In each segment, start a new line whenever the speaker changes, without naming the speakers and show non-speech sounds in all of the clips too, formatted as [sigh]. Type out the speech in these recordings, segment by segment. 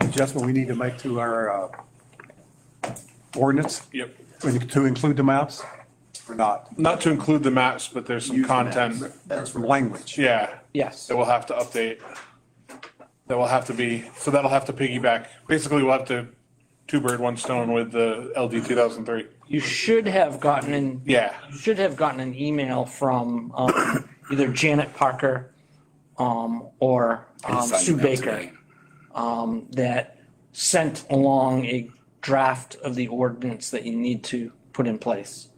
adjustment we need to make to our uh, ordinance?
Yep.
To include the maps or not?
Not to include the maps, but there's some content,
That's from language.
yeah,
Yes.
that we'll have to update. That will have to be, so that'll have to piggyback. Basically, we'll have to two bird, one stone with the LD two thousand three.
You should have gotten an
Yeah,
you should have gotten an email from um, either Janet Parker um, or um,
Signing
Sue
that
Baker
tonight.
um, that sent along a draft of the ordinance that you need to put in place.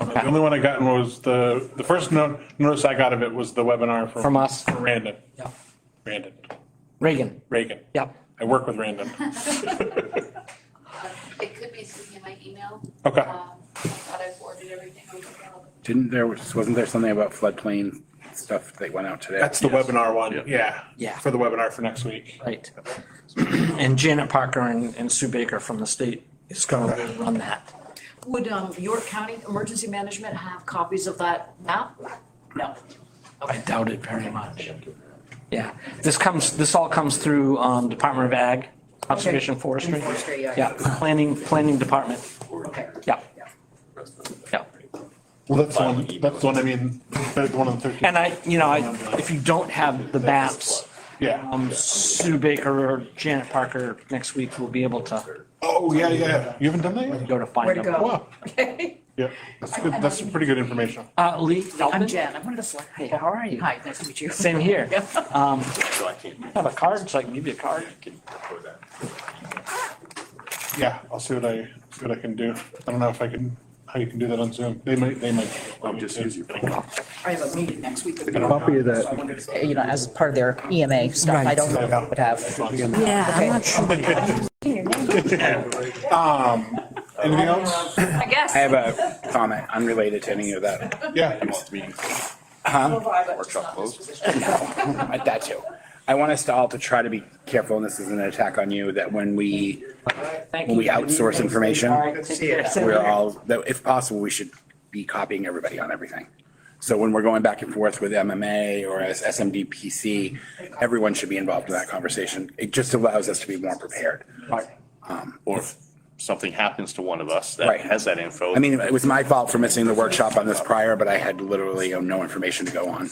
the only one I gotten was the, the first no- notice I got of it was the webinar
From
from
us,
Randon,
yeah.
Randon,
Reagan,
Reagan.
yep.
I work with Randon.
It could be sitting in my email.
Okay.
Um, I thought I forwarded everything over to all of them.
Didn't there, wasn't there something about floodplain stuff that went out today?
That's the webinar one, yeah.
Yeah.
For the webinar for next week.
Right. [clears throat] And Janet Parker and and Sue Baker from the state is going to run that.
Would um, York County Emergency Management have copies of that map? No.
I doubt it very much. Yeah, this comes, this all comes through um, Department of Ag, Conservation Forestry.
And forestry, yeah.
Yeah, planning, planning department,
Okay.
yeah, yeah.
Well, that's the one, that's the one, I mean, that's one of the thirteen.
And I, you know, I, if you don't have the maps,
Yeah.
um, Sue Baker or Janet Parker next week will be able to
Oh, yeah, yeah. You haven't done that yet?
go to find
Where to
them.
go?
Wow. Yeah, that's good, that's some pretty good information.
Uh, Lee Feldman?
I'm Jen, I'm one of the select.
Hey, how are you?
Hi, nice to meet you.
Same here.
Yep.
Um,
So I can't.
have a card, so I can give you a card.
Yeah, I'll see what I, see what I can do. I don't know if I can, how you can do that on Zoom. They might, they might.
I'll just use your phone.
[laughs] I have a meeting next week. with
A copy of that.
So I wondered if-
Uh, you know, as part of their EMA stuff. I don't know if it would have.
Yeah, I'm
Okay.
not sure.
Anything else?
I guess.
I have a comment unrelated to any of that.
Yeah.
Workshop [laughs] closed.
I- That too. I want us to all to try to be careful, and this isn't an attack on you, that when we,
Thank
when
you.
we outsource information,
We're
we're all, that if possible, we should be copying everybody on everything. So when we're going back and forth with MMA or as SMDPC, everyone should be involved in that conversation. It just allows us to be more prepared.
Or if something happens to one of us that
Right.
has that info.
I mean, it was my fault for missing the workshop on this prior, but I had literally no information to go on.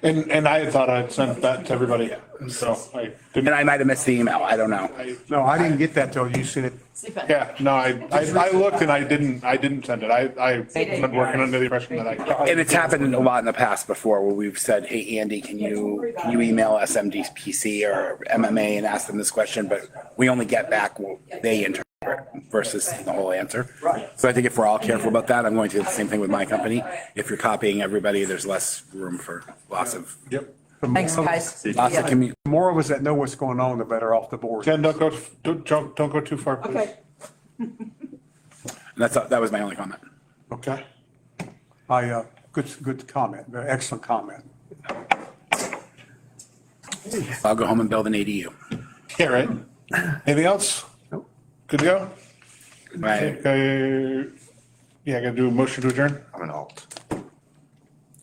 And, and I thought I'd sent that to everybody, so I
And
didn't,
I might have missed the email. I don't know.
No, I didn't get that till you sent it.
yeah, no, I, I, I looked and I didn't, I didn't send it. I, I been working under the impression that I.
And it's happened a lot in the past before where we've said, hey, Andy, can you, can you email SMDPC or MMA and ask them this question? But we only get back what they interpret versus the whole answer. So I think if we're all careful about that, I'm going to do the same thing with my company. If you're copying everybody, there's less room for lots of,
Yep.
Thanks, guys.
lots of commu,
The more of us that know what's going on, the better off the board.
Jen, don't go, don't, don't don't go too far, please.
and that's, that was my only comment.
Okay.
I, uh, good, good comment, Very excellent comment.
I'll go home and build an ADU.
Yeah, right. Anything else?
Nope.
Good to go?
Right.
Okay. Uh, Yeah, I gotta do a motion to adjourn.
I'm an alt.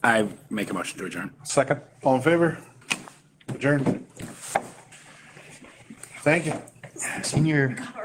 I make a motion to adjourn.
Second?
All in favor? Adjourn. Thank you.
Senior